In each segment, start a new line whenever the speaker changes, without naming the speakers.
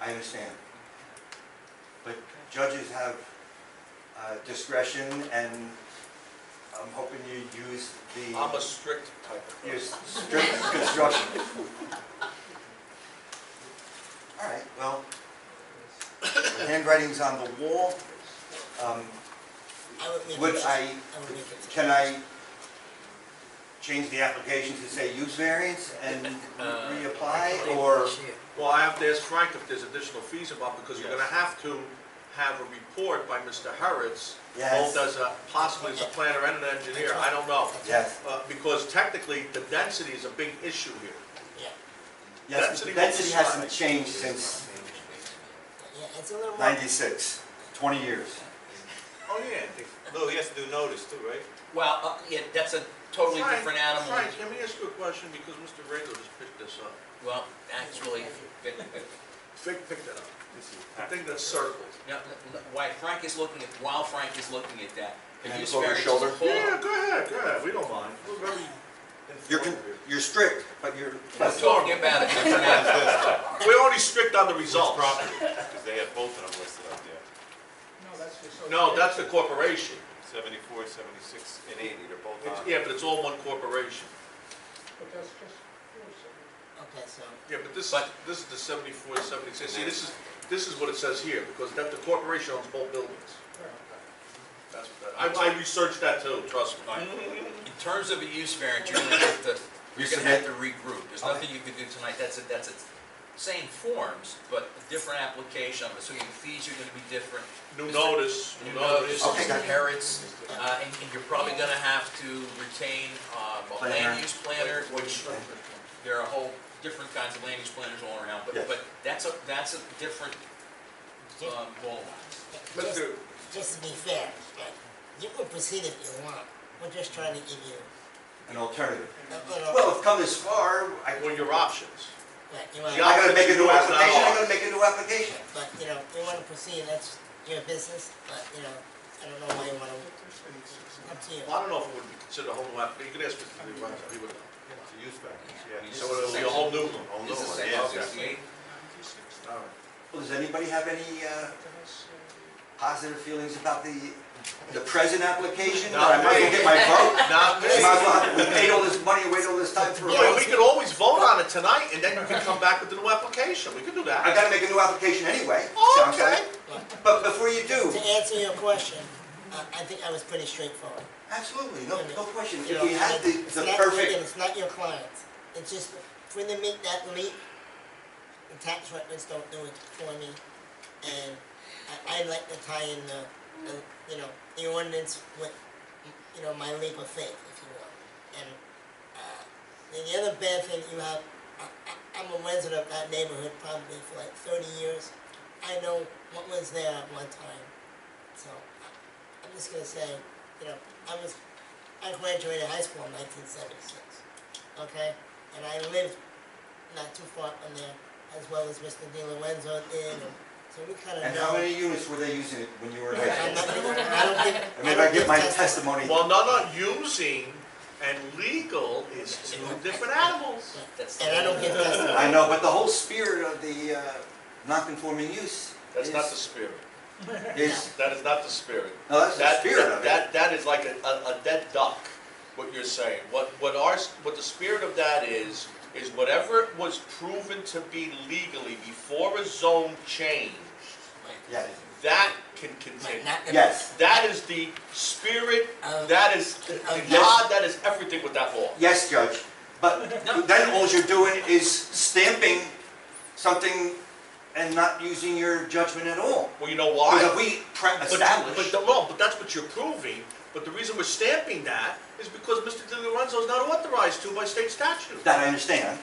I understand. But judges have uh, discretion and I'm hoping you use
I'm a
the,
strict type of
your
person.
strict construction. All right, well, the handwriting's on the wall. Um,
I would make a
Would
motion-
I,
would make a-
can I change the application to say use variance and reapply or?
Well, I have to ask Frank if there's additional fees involved, because you're gonna have to have a report by Mr. Harretts,
Yes.
both as a, possibly as a planner and an engineer, I don't know.
Yes.
Uh, Because technically, the density is a big issue here.
Yeah,
Yes,
Density
the
will
density hasn't
decide.
changed since
yeah, it's a little more.
96, 20 years.
Oh, yeah.
Lou, he has to do notice too, right?
Well, uh, yeah, that's a totally
Frank,
different animal.
Frank, let me ask you a question, because Mr. Rego just picked this up.
Well, actually, but- but-
Vic picked it up. The thing that's circled.
no, no, why Frank is looking at, while Frank is looking at that, the
Hands
use
over your
variance
shoulder.
is a whole-
Yeah, go ahead, go ahead, we don't mind. Oh. We're very
You're, con-
informed
you're strict, but you're,
We're talking about a different animal.
here. We're only strict on the results.
Because they have both of them listed up there.
No, that's the corporation.
Seventy-four, seventy-six, and eighty, they're both
It's-
on.
Yeah, but it's all one corporation.
Okay, so,
Yeah, but this,
But-
this is the seventy-four, seventy-six, see, this is, this is what it says here, because that, the corporation owns both buildings. That's what that, I, I researched that too, trust me.
In terms of a use variance, you're gonna have to, you're gonna have to regroup. There's
Okay.
nothing you can do tonight, that's a, that's a, same forms, but a different application of it, so your fees are gonna be different.
New notice,
You
new
notice,
notice.
Okay,
Mr.
gotcha.
Harretts, uh, and and you're probably gonna have to retain, um, a
Planner.
land use planner, which there are a whole different kinds of land use planners all around, but,
Yes.
but that's a, that's a different, um, goal.
just,
Mr.
just to be fair, okay, you can proceed if you want, we're just trying to give you
an alternative.
a little.
Well, I've come this far, I,
Well, your options.
Right, you wanna-
I'm gonna make a new
Yeah.
application, I'm gonna make a new application.
But, you know, you wanna proceed, that's your business, but, you know, I don't know why you wanna, up to you.
Well, I don't know if it would be considered a whole new application, you can ask Mr. DeRosa, he would know.
It's a use variance, yeah.
So it'll be a whole new one.
Whole new
This is
one,
section
Oh, yeah, yeah.
68.
All right.
Well, does anybody have any, uh, positive feelings about the, the present application?
Not
That I might
me.
go get my vote?
Not
Might as
me.
well, we paid all this money, waited all this time for a
Boy, we
vote.
could always vote on it tonight, and then you can come back with a new application, we could do
I
that.
gotta make a new application anyway, sounds
Okay.
like. But before you do,
To answer your question, I, I think I was pretty straightforward.
absolutely, no, no question,
You
if
know,
we had the,
it's
the
not-
perfect
It's not your clients, it's just, when they make that leap, the tax records don't do it for me. And I, I like to tie in the, the, you know, the ordinance with, you know, my leap of faith, if you will. And, uh, then the other bad thing you have, I, I, I'm a resident of that neighborhood probably for like thirty years. I know what was there at one time, so I- I'm just gonna say, you know, I was I graduated high school in 1976, okay? And I lived not too far from there, as well as Mr. Di Lorenzo did, and so we kind of
And
know.
how many units were they using it when you were in high
I'm not
school?
gonna- I don't think.
And maybe I
don't
get my
think that's-
testimony.
Well, no, no, using and legal is two different animals.
That's the
And I don't
whole-
get testimony.
I know, but the whole spirit of the uh, non-conforming use
That's
is,
not the spirit,
is-
that is not the spirit.
no, that's the
That-
spirit of it.
That, that is like a, a a dead duck, what you're saying. What, what ours, what the spirit of that is, is whatever was proven to be legally before a zone change,
Yes,
that can
Might
continue.
not gonna-
yes,
That is the spirit,
Um,
that is the the God, that is everything with that law.
yes, Judge. But then all you're doing is stamping something and not using your judgment at all.
Well, you know why?
Because if we pre-
But-
establish,
But, no, but that's what you're proving, but the reason we're stamping that is because Mr. Di Lorenzo is not authorized to by state statute.
that I understand,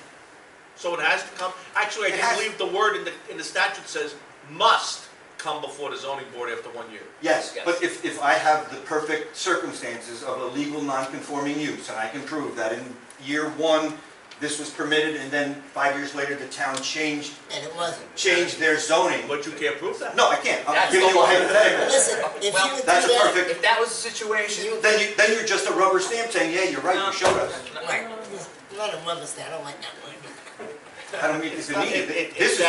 So it has to come, actually, I
It has-
do believe the word in the, in the statute says must come before the zoning board after one year.
yes.
Yes.
But if, if I have the perfect circumstances of a legal non-conforming use, and I can prove that in year one, this was permitted, and then five years later, the town changed
And it wasn't.
change their zoning.
But you can't prove that.
No, I can't. I'm
That's
giving you a
the-
hypothetical.
Listen, if you
Well,
would do
That's a
that,
perfect,
If that was the situation,
you.
then you, then you're just a rubber stamp saying, yeah, you're right, you showed us.
Um,
Right, not a mother's day, I don't like that word.
I don't mean,
It's
it's
not-
needed.
it- it-
This is